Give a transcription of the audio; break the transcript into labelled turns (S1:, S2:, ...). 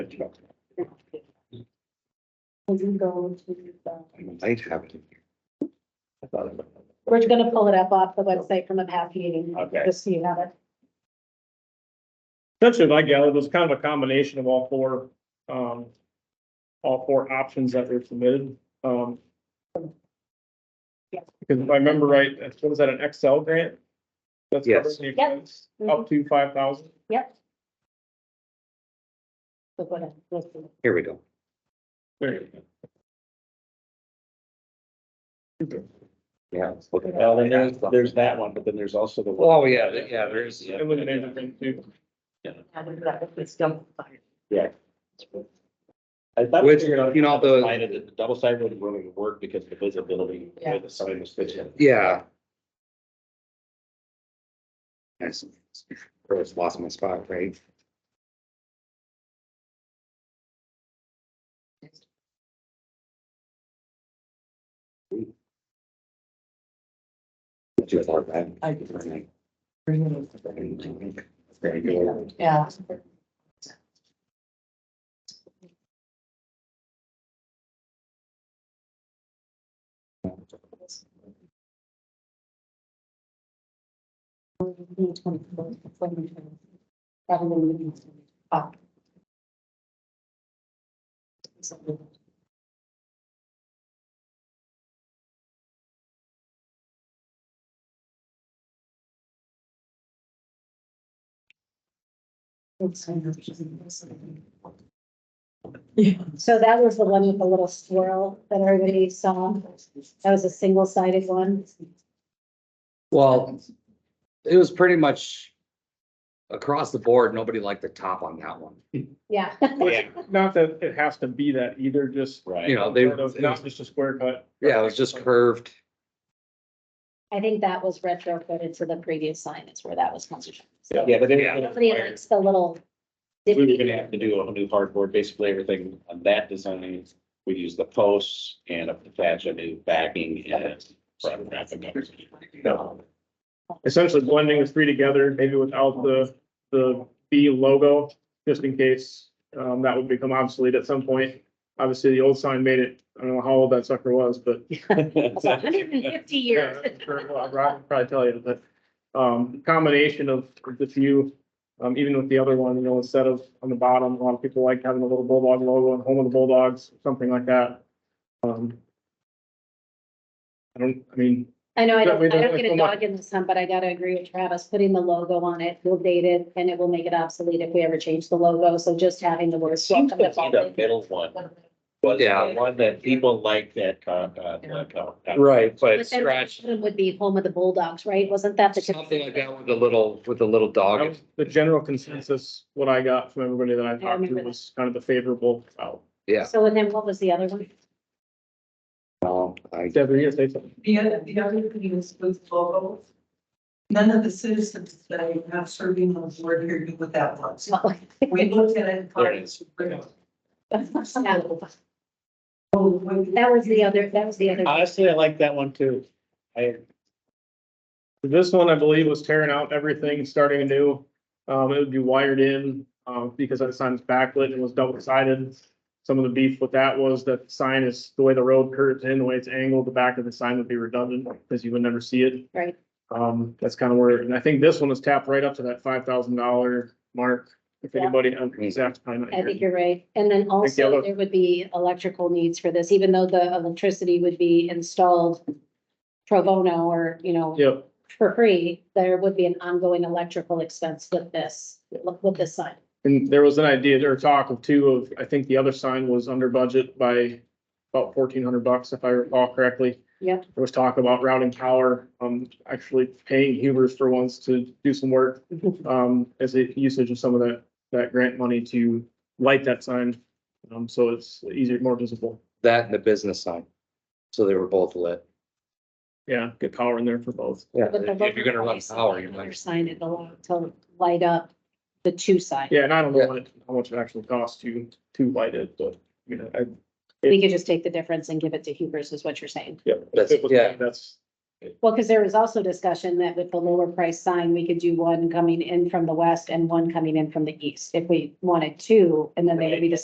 S1: job.
S2: We'll go to, uh, the-
S1: I might have it in here. I thought it was.
S2: we're gonna pull it up off the website from a past meeting,
S1: Okay.
S2: just so you have it.
S3: Essentially, like gathered, was kind of a combination of all four, um, all four options that were submitted, um.
S2: Yeah.
S3: Because if I remember right, that's- what was that, an Excel grant? That's
S1: Yes.
S3: covering the
S2: Yep.
S3: expense, up to five thousand.
S2: Yep. So go ahead. listen.
S1: Here we go.
S3: There you go.
S1: Yeah. let's look at that.
S4: Well, then there's, there's that one, but then there's also the.
S1: Oh, yeah, th- yeah, there's, yeah.
S3: It was an interesting too.
S4: I thought-
S1: Which, you know, the-
S4: Decided that the Double side wouldn't really work because the visibility, the way the sun was pitching.
S1: Yeah. I just I just lost my spot, right? Too far back. There you go.
S2: Yeah. So that was the one with the little swirl that everybody saw. That was a single sided one.
S1: Well, it was pretty much across the board, nobody liked the top on that one.
S2: Yeah.
S3: Which, not that it has to be that either, just.
S1: You
S4: Right.
S1: know, they,
S3: Not just a square cut.
S1: yeah, it was just curved.
S2: I think that was retrofitted to the previous sign is where that was concerned. So
S4: Yeah, but then.
S1: Yeah.
S2: Nobody likes the little.
S4: We were
S2: dippy-
S4: gonna have to do a new hardboard, basically everything on that design, we use the posts and attach a new backing and. front wrapping up.
S3: No. Essentially blending the three together, maybe without the, the B logo, just in case, um, that would become obsolete at some point. Obviously, the old sign made it, I don't know how old that sucker was, but.
S2: It's a hundred and fifty
S3: yeah,
S2: years.
S3: that's very well, Rob can Probably tell you, but, um, combination of the few, um, even with the other one, you know, instead of on the bottom, a lot of people like having a little bulldog logo and home of the Bulldogs, something like that. Um. I don't, I mean,
S2: I know, I
S3: Yeah,
S2: don't,
S3: we
S2: I
S3: don't
S2: don't
S3: like
S2: get a
S3: so much.
S2: dog in this hunt, but I gotta agree with Travis, putting the logo on it will date it and it will make it obsolete if we ever change the logo. So just having the word.
S4: Seems
S2: welcome to
S4: to be the
S2: Baldwin.
S4: middle one, was
S1: Yeah.
S4: the one that people like that, uh, uh, uh,
S1: Right, but
S2: But then
S1: scratched,
S2: it Would be home of the Bulldogs, right? Wasn't that the?
S1: something like that with the little, with the little
S3: That
S1: dog.
S3: was the general consensus, what I got from everybody that I talked to
S2: remember that.
S3: was kind of the favorable.
S4: oh.
S3: out.
S1: Yeah.
S2: So and then what was the other one?
S1: No, I,
S3: Debbie, yes, they said,
S5: The other, the other thing is with locals. None of the citizens that I have serving on the board here knew what that was. We looked at it and thought it was. real.
S2: That
S5: Oh, when-
S2: was the other, that was the other.
S4: Honestly, I like that one too. I,
S3: this one, I believe, was tearing out everything, starting anew. Um, it would be wired in, um, because that sign's backlit and was double sided. Some of the beef with that was that the sign is, the way the road curves in, the way it's angled, the back of the sign would be redundant, because you would never see it.
S2: Right.
S3: Um, that's kind of where, and I think this one was tapped right up to that five thousand dollar mark, if
S2: Yeah.
S3: anybody, I'm exactly.
S2: I think you're right. And then also
S3: yellow-
S2: there would be electrical needs for this, even though the electricity would be installed pro bono or, you know,
S3: Yep.
S2: for free, there would be an ongoing electrical expense with this, with this sign.
S3: And there was an idea or talk of two of, I think the other sign was under budget by about fourteen hundred bucks, if I recall correctly.
S2: Yep.
S3: There was talk about routing power, um, actually paying Hubers for once to do some work, um, as a usage of some of that, that grant money to light that sign. Um, so it's easier, more visible.
S1: that and the business sign. So they were both lit.
S3: Yeah, get power in there for both.
S1: Yeah,
S2: But the
S1: if you're gonna run
S2: lower
S1: power, you
S2: Another
S1: might.
S2: sign it allow to light up the two signs.
S3: Yeah, and I don't know what it, how much it actually costs to, to light it, but, you know, I.
S2: We could just take the difference and give it to Hubers is what you're saying.
S3: Yeah.
S1: That's- yeah.
S3: That's,
S2: Well, because there was also discussion that with the lower price sign, we could do one coming in from the west and one coming in from the east. If we wanted two, and then they would be the